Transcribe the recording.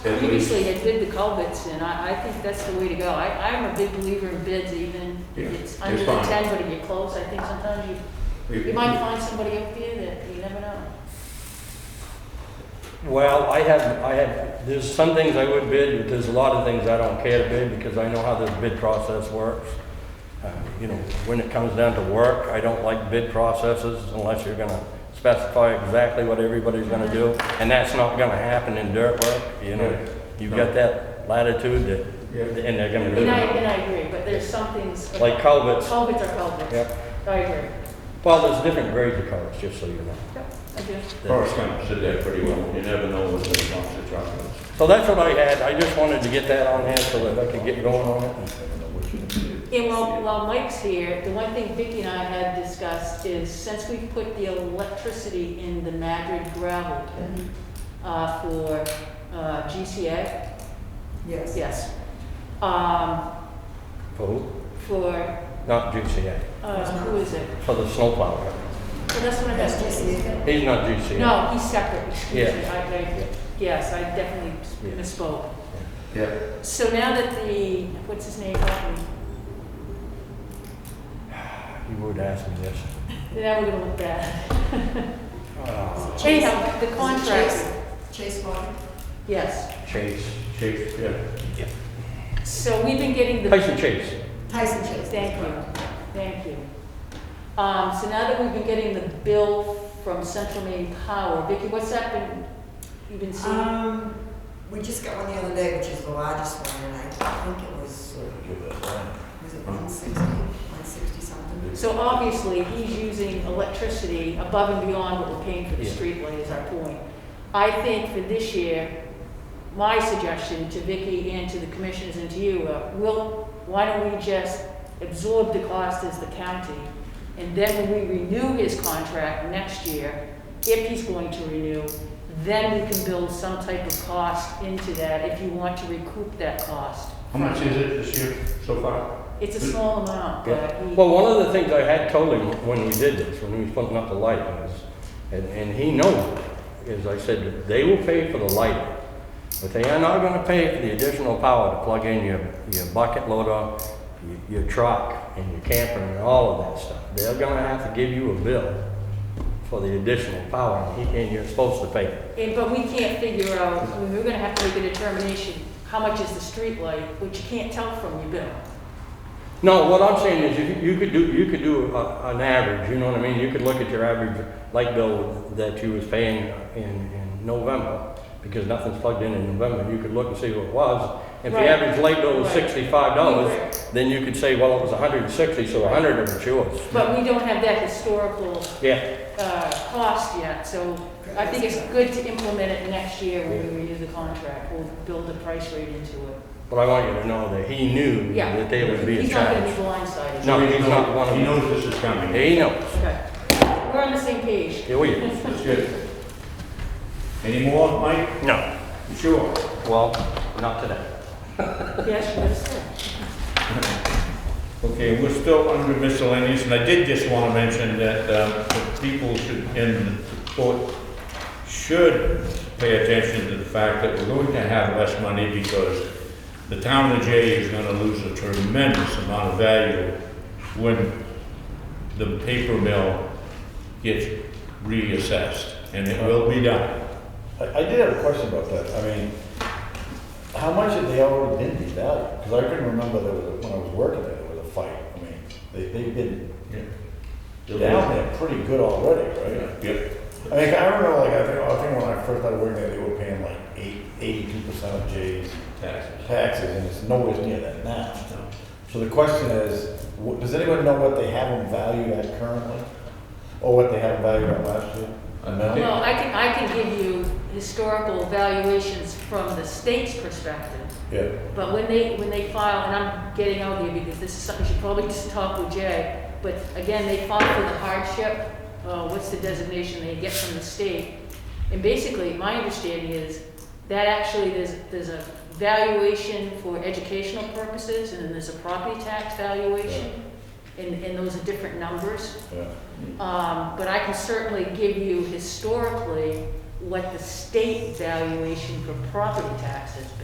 previously had bid the culverts, and I, I think that's the way to go. I, I'm a big believer in bids, even Yeah, if it's they're under the fine. ten, but if you're close, I think sometimes you, you might find somebody up there that you never know. Well, I have, I have, there's some things I would bid, but there's a lot of things I don't care to bid because I know how this bid process works. Uh, You know, when it comes down to work, I don't like bid processes unless you're gonna specify exactly what everybody's gonna do. And that's not gonna happen in dirt work, you know? You've got that latitude that, Yeah. and they're gonna do And I, it. and I agree, but there's some things. Like culverts. Culverts are culverts. Yep. I agree. Well, there's different grades of colors, just so you know. Yep, I do. Forrest Gump did that pretty well. You never know what's going to come to chocolate. So that's what I had. I just wanted to get that on hand so that I could get going on it. And while, while Mike's here, the one thing Vicki and I had discussed is since we put the electricity in the Madrid gravel pit, uh, for, uh, GCA, Yes. yes, um, Who? for, Not GCA, uh, who is it? for the snowplow. Well, that's one of That's those. GCA. He's not GCA. No, he's separate, excuse me, Yeah. I, I, yes, I definitely Yeah. misspoke. Yeah. So now that the, what's his name, got me, You would ask me this. now we're gonna look bad. Uh, Anyhow, the Is it contract, Chase Chase Water? yes. Chase. Chase, yeah. So we've been getting the. Tyson Chase. Tyson Chase. Thank you, thank you. Um, so now that we've been getting the bill from Central Maine Power, Vicki, what's that been, you've been seeing? Um, we just got one the other day, which is the largest one, and I think it was, was it one sixty, one sixty something? So obviously, he's using electricity above and beyond what we're paying for the Yeah. streetlight is our point. I think for this year, my suggestion to Vicki and to the commissioners and to you, uh, will, why don't we just absorb the cost as the county? And then when we renew his contract next year, if he's going to renew, then we can build some type of cost into that if you want to recoup that cost. How much is it this year so far? It's a small amount, but he. Well, one of the things I had told him when we did this, when he was putting up the light was, and, and he knows, is I said, they will pay for the light, but they are not gonna pay for the additional power to plug in your, your bucket loader, your- your truck, and your camper, and all of that stuff. They're gonna have to give you a bill for the additional power, and he- and you're supposed to pay it. And, but we can't figure out, I mean, we're gonna have to make a determination, how much is the street light, which you can't tell from your bill. No, what I'm saying is you, you could do, you could do a, an average, you know what I mean? You could look at your average light bill that you was paying in, in November, because nothing's plugged in in November, you could look and see what it was. If the Right. average light bill was Right. sixty-five dollars, Right. then you could say, well, it was hundred and sixty, so hundred of it's yours. But we don't have that historical, Yeah, uh, cost yet, so I think it's good to implement it next year when we renew the contract. We'll build a price rate into it. but I want you to know that he knew Yeah. that they would be He's not gonna be charged. blindsided. No, he's not one of He them. knows this is coming. He knows, Okay. We're on the same page. yeah, we, That's good. Any more, Mike? no, You Sure. well, not today. Yes, you understand. Okay, we're still under miscellaneous, and I did just want to mention that um, the people should, in the court, should pay attention to the fact that we're going to have less money because the town of Jay is going to lose a tremendous amount of value when the paper mill gets reassessed, and it will be done. I, I did have a question about that. I mean, how much have they already been devalued? Because I couldn't remember there was, a- when I was working there, there was a fight. I mean, they, they've been down there pretty good already, right? Yep. I mean, I remember like, I think, I think when I first started working there, they were paying like eight, eighty-two percent of Jay's Taxes. taxes, and it's nowhere near that now. So the question is, wh- does anyone know what they have them valued at currently? Or what they have them valued at last year? No? Well, I can, I can give you historical valuations from the state's perspective. Yeah. But when they, when they file, and I'm getting out here because this is something you should probably just talk with Jay, but again, they file for the hardship, uh, what's the designation they get from the state? And basically, my understanding is that actually there's, there's a valuation for educational purposes and then there's a property tax valuation. And, and those are different numbers. Yeah. Um, but I can certainly give you historically what the state valuation for property taxes